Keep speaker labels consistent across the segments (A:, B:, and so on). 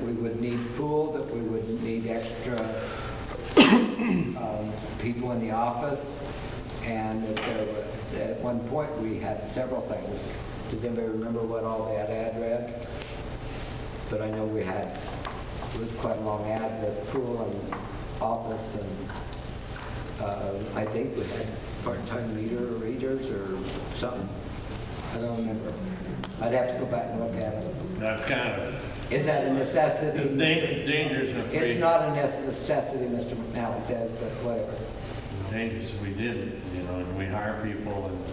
A: would need pool, that we would need extra um, people in the office, and that there were, at one point, we had several things. Does anybody remember what all that ad read? But I know we had, it was quite a long ad, the pool and office, and uh, I think we had part-time leader, readers, or something. I don't remember. I'd have to go back and look at it.
B: That's kind of,
A: Is that a necessity?
B: it's dan- dangerous if we...
A: It's not a necessity, Mr. McNally says, but whatever.
B: Dangerous if we didn't, you know, and we hire people and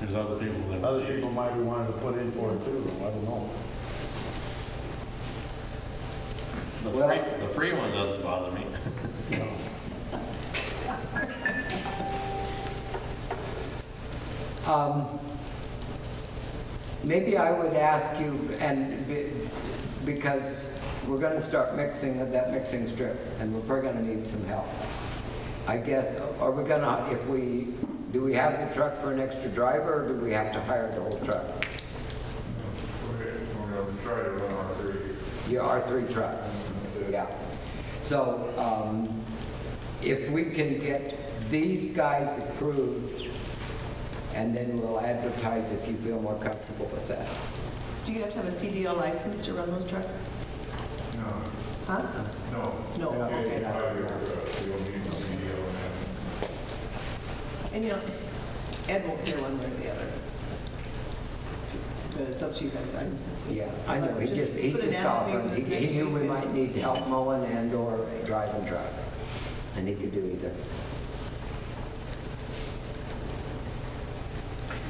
B: there's other people that...
C: Other people might be wanting to put in for it too, I don't know.
B: The
A: Well-
B: free, the free one doesn't bother me.
A: Um, Maybe I would ask you, and be- because we're gonna start mixing of that mixing strip, and we're probably gonna need some help. I guess, are we gonna, if we, do we have the truck for an extra driver, or do we have to hire the whole truck?
D: Okay, we're gonna try to run our three.
A: Your R3 truck, yeah. So um, if we can get these guys approved, and then we'll advertise if you feel more comfortable with that.
E: Do you have to have a CDL license to run those trucks?
D: No,
E: Huh?
D: no.
E: No,
D: You have
E: okay.
D: to have your, uh, so you'll need to be, uh,
E: And you know, Ed won't care one way or the other. But it's up to you guys. I'm,
A: Yeah, I know, he just, he
E: Just put an
A: just
E: ad on
A: offered,
E: it,
A: he
E: it's next
A: he knew we
E: week.
A: might need help mowing and/or driving truck, and he could do either.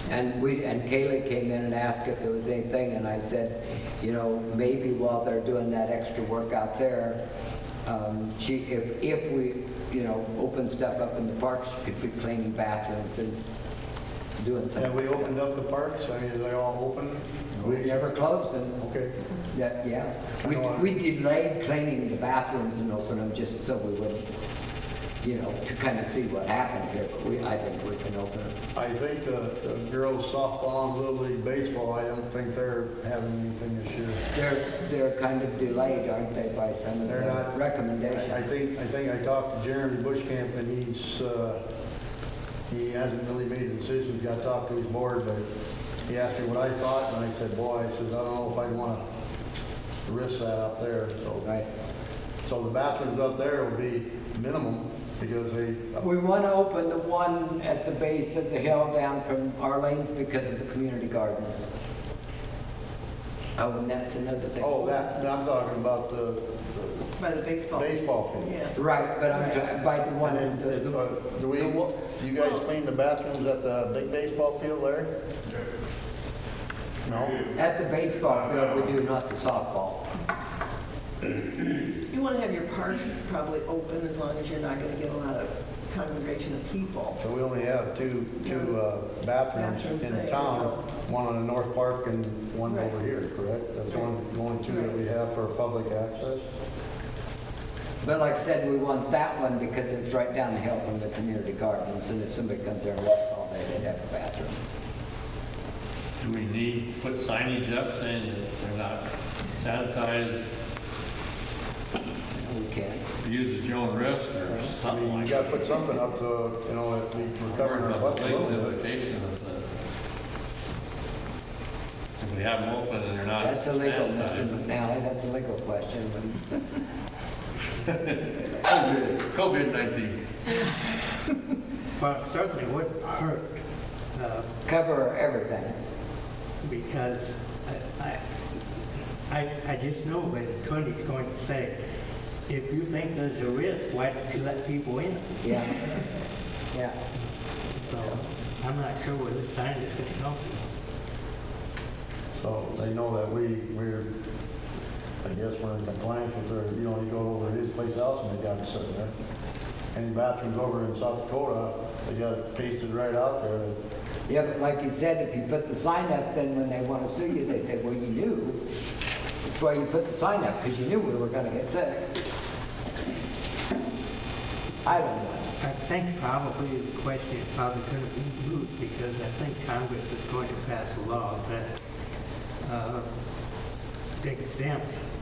A: And we, and Kaylee came in and asked if there was anything, and I said, you know, maybe while they're doing that extra work out there, um, she, if, if we, you know, open stuff up in the parks, she could be cleaning bathrooms and doing
C: Have
A: something.
C: we opened up the parks? I mean, are they all open?
A: We never closed them.
C: Okay.
A: Yeah, yeah. We, we delayed cleaning the bathrooms and opening them just so we would, you know, to kind of see what happened here, but we, I think we can open them.
C: I think the the girls softball and little league baseball, I don't think they're having anything this year.
A: They're, they're kind of delayed, aren't they, by some of
C: They're
A: the
C: not- I
A: recommendations?
C: think, I think I talked to Jeremy Bushcamp and he's, uh, he hasn't really made a decision. He's got to talk to his board, but he asked me what I thought and I said, boy, I said, I don't know if I'd want to risk that up there, so.
A: Right.
C: So the bathrooms up there will be minimum because they,
A: We want to open the one at the base of the hill down from Arlene's because of the community gardens. Oh, and that's another thing.
C: oh, that, I'm talking about the
E: by the baseball.
C: baseball field.
E: Yeah.
A: Right, but I'm, try- by the one, in the, the-
C: Uh, Do we, you guys clean the bathrooms at the big baseball field there? No?
A: at the baseball field, we do, not the softball.
E: You want to have your parks probably open as long as you're not going to get a lot of congregation of people.
C: So we only have two, two uh, bathrooms
E: Bathrooms
C: in
E: there,
C: town, one on the north park and one
E: Right.
C: over here, correct? That's the only, the only two that we have for public access?
A: But like I said, we want that one because it's right down the hill from the community gardens, and if somebody comes there and walks all day, they'd have a bathroom.
B: Do we need, to put signage up saying that they're not sanitized,
A: We can.
B: use at your own risk or
C: I
B: something
C: mean,
B: like
C: you
B: that?
C: gotta put something up to, you know, if we- we're
B: Worry
C: covering
B: about
C: our
B: the
C: butts a
B: late
C: little bit.
B: notification of the... If we have them open and they're not
A: That's illegal, Mr.
B: sanitized.
A: McNally, that's a legal question.
B: COVID-19.
F: Well, it certainly wouldn't hurt, uh,
A: Cover everything.
F: because I- I, I, I just know what the attorney's going to say. If you think there's a risk, why don't you let people in?
A: Yeah. Yeah.
F: So I'm not sure whether sign is going to help you.
C: So they know that we, we're, I guess we're in compliance with their, you know, you go over to his place else and they got it sitting there. Any bathrooms over in South Dakota, they got it pasted right out there.
A: Yeah, but like you said, if you put the sign up, then when they want to sue you, they say, well, you knew. That's why you put the sign up, because you knew we were gonna get sick. I don't know.
F: I think probably the question is probably going to be moot because I think Congress is going to pass a law that uh, exempts